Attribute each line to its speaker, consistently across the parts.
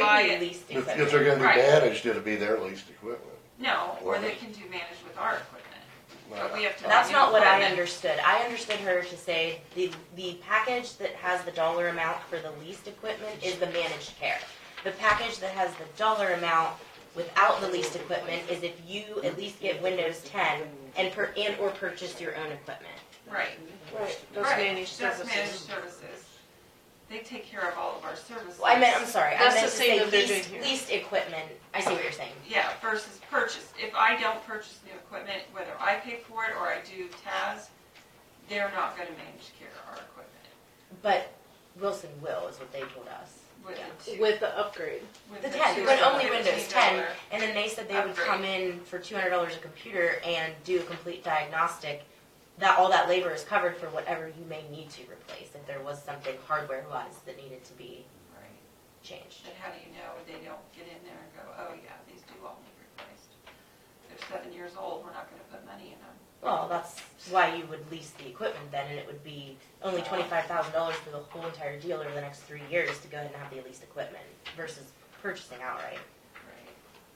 Speaker 1: buy
Speaker 2: need
Speaker 1: it.
Speaker 2: leased
Speaker 3: If,
Speaker 2: equipment.
Speaker 3: if they're gonna
Speaker 1: Right.
Speaker 3: be damaged, it'll be their leased equipment.
Speaker 1: No, or
Speaker 3: Well,
Speaker 1: they
Speaker 3: that's-
Speaker 1: can do managed with our equipment.
Speaker 3: Nah.
Speaker 1: But we have to.
Speaker 2: That's
Speaker 1: buy new
Speaker 2: not what I
Speaker 1: equipment.
Speaker 2: understood. I understood her to say the, the package that has the dollar amount for the leased equipment is the managed care. The package that has the dollar amount without the leased equipment is if you at least get Windows ten and per, and or purchase your own equipment.
Speaker 1: Right.
Speaker 4: Right, those
Speaker 1: Right.
Speaker 4: managed
Speaker 1: That's
Speaker 4: services.
Speaker 1: managed services. They take care of all of our services.
Speaker 2: Well, I meant, I'm sorry, I
Speaker 4: That's
Speaker 2: meant to
Speaker 4: the
Speaker 2: say
Speaker 4: same that they're
Speaker 2: leased,
Speaker 4: doing here.
Speaker 2: leased equipment. I see what you're saying.
Speaker 1: Yeah, versus purchase. If I don't purchase new equipment, whether I pay for it or I do TAS, they're not gonna manage care our equipment.
Speaker 2: But Wilson will is what they told us.
Speaker 1: With the two.
Speaker 4: With the upgrade.
Speaker 1: with
Speaker 2: The
Speaker 1: the
Speaker 2: ten,
Speaker 1: two
Speaker 2: but
Speaker 1: or
Speaker 2: only
Speaker 1: the
Speaker 2: Windows ten,
Speaker 1: $15.
Speaker 2: and then they said they would
Speaker 1: Upgrade.
Speaker 2: come in for two hundred dollars a computer and do a complete diagnostic. That all that labor is covered for whatever you may need to replace, if there was something hardware wise that needed to be
Speaker 1: Right.
Speaker 2: changed.
Speaker 1: But how do you know they don't get in there and go, oh yeah, these do all need replaced? They're seven years old, we're not gonna put money in them.
Speaker 2: Well, that's why you would lease the equipment then, and it would be only twenty-five thousand dollars for the whole entire deal over the next three years to go ahead and have the leased equipment versus purchasing outright.
Speaker 1: Right.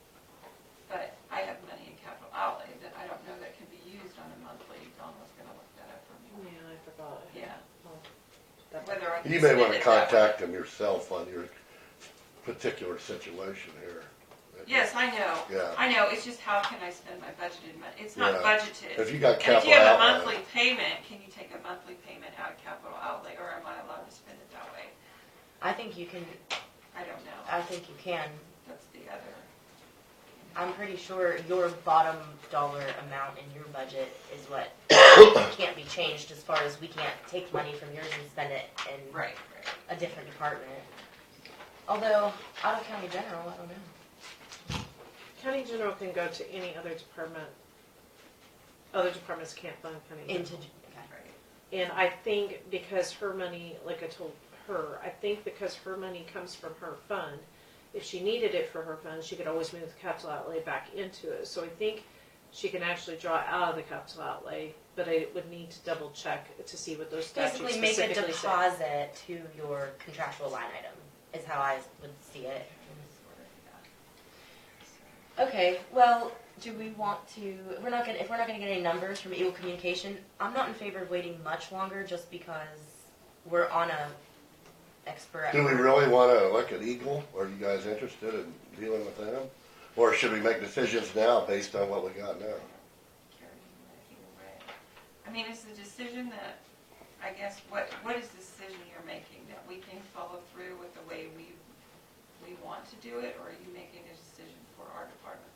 Speaker 1: But I have money in capital outlay that I don't know that can be used on a monthly. Don was gonna look that up for
Speaker 4: Yeah,
Speaker 1: me.
Speaker 4: I forgot.
Speaker 1: Yeah.
Speaker 4: That-
Speaker 1: Whether I can
Speaker 3: You may
Speaker 1: spend
Speaker 3: wanna
Speaker 1: it that way.
Speaker 3: contact them yourself on your particular situation here.
Speaker 1: Yes, I know.
Speaker 3: Yeah.
Speaker 1: I know, it's just how can I spend my budgeted money? It's not
Speaker 3: Yeah. If
Speaker 1: budgeted.
Speaker 3: you got
Speaker 1: And if
Speaker 3: capital
Speaker 1: you have a
Speaker 3: outlay,
Speaker 1: monthly payment, can you take a monthly payment out of capital outlay or am I allowed to spend it that way?
Speaker 2: I think you can,
Speaker 1: I don't know.
Speaker 2: I think you can,
Speaker 1: That's the other.
Speaker 2: I'm pretty sure your bottom dollar amount in your budget is what can't be changed as far as we can't take money from yours and spend it in
Speaker 1: Right, right.
Speaker 2: a different department. Although, out of county general, I don't know.
Speaker 4: County general can go to any other department. Other departments can't fund county general.
Speaker 2: Into, okay.
Speaker 1: Right.
Speaker 4: And I think because her money, like I told her, I think because her money comes from her fund, if she needed it for her fund, she could always move the capital outlay back into it. So I think she can actually draw out of the capital outlay, but I would need to double check to see what those statutes
Speaker 2: Basically, make a
Speaker 4: specifically say.
Speaker 2: deposit to your contractual line item, is how I would see it.
Speaker 1: Sort of, yeah. So-
Speaker 2: Okay, well, do we want to, we're not gonna, if we're not gonna get any numbers from Eagle Communication, I'm not in favor of waiting much longer just because we're on a expert.
Speaker 3: do we really wanna look at Eagle? Are you guys interested in dealing with them? Or should we make decisions now based on what we got now?
Speaker 1: Carried away, away. I mean, it's the decision that, I guess, what, what is the decision you're making? That we can follow through with the way we, we want to do it, or are you making a decision for our department?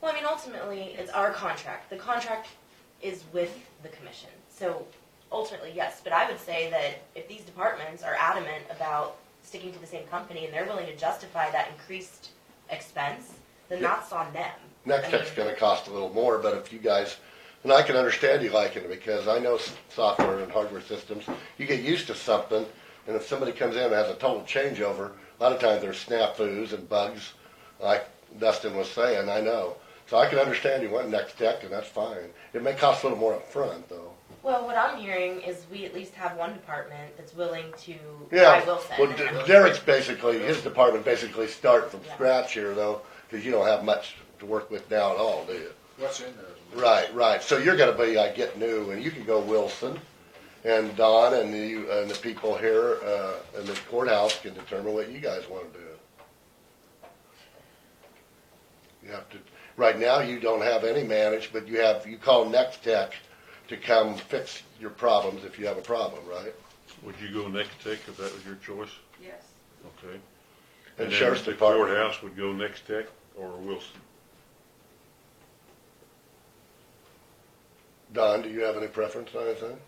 Speaker 2: Well, I mean, ultimately, it's our contract. The contract is with the commission. So ultimately, yes, but I would say that if these departments are adamant about sticking to the same company and they're willing to justify that increased expense, then that's on them.
Speaker 3: Next tech's gonna cost a little more, but if you guys, and I can understand you liking it, because I know s- software and hardware systems, you get used to something, and if somebody comes in and has a total changeover, a lot of times there's snafus and bugs, like Dustin was saying, I know. So I can understand you want next tech, and that's fine. It may cost a little more upfront, though.
Speaker 2: Well, what I'm hearing is we at least have one department that's willing to buy
Speaker 3: Yeah,
Speaker 2: Wilson.
Speaker 3: well,
Speaker 2: and
Speaker 3: D-
Speaker 2: I'm-
Speaker 3: Derek's basically, his department basically start from
Speaker 2: Yeah.
Speaker 3: scratch here, though, because you don't have much to work with now at all, do you?
Speaker 5: What's in there?
Speaker 3: Right, right. So you're gonna be, I get new, and you can go Wilson, and Don and you, and the people here, uh, in the courthouse can determine what you guys wanna do. You have to, right now, you don't have any managed, but you have, you call Next Tech to come fix your problems if you have a problem, right?
Speaker 6: Would you go next tech if that was your choice?
Speaker 1: Yes.
Speaker 6: Okay.
Speaker 3: And
Speaker 6: then
Speaker 3: Sheriff's
Speaker 6: the
Speaker 3: Department,
Speaker 6: Courthouse would go next tech or Wilson.
Speaker 3: Don, do you have any preference on anything?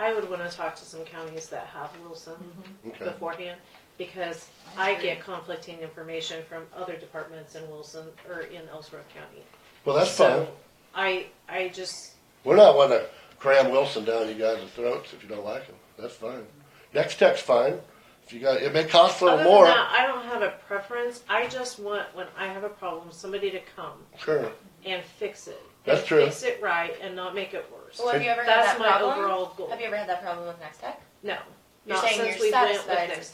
Speaker 4: I would wanna talk to some counties that have Wilson
Speaker 2: Mm-hmm.
Speaker 3: Okay,
Speaker 4: beforehand, because I get conflicting information from other departments in Wilson, or in Ellsworth County.
Speaker 3: well, that's
Speaker 4: So,
Speaker 3: fine.
Speaker 4: I, I just,
Speaker 3: We're not one to cram Wilson down you guys' throats if you don't like him. That's fine. Next tech's fine. If you got, it may cost a
Speaker 4: other
Speaker 3: little
Speaker 4: than
Speaker 3: more.
Speaker 4: that, I don't have a preference, I just want, when I have a problem, somebody to come
Speaker 3: Sure.
Speaker 4: and fix it.
Speaker 3: That's
Speaker 4: And
Speaker 3: true.
Speaker 4: Fix it right and not make it worse.
Speaker 2: Well, have you ever had
Speaker 4: That's
Speaker 2: that
Speaker 4: my
Speaker 2: problem?
Speaker 4: overall goal.
Speaker 2: Have you ever had that problem with Next Tech?
Speaker 4: No,
Speaker 2: You're
Speaker 4: not
Speaker 2: saying
Speaker 4: since
Speaker 2: you're
Speaker 4: we went with
Speaker 2: satisfied
Speaker 4: this.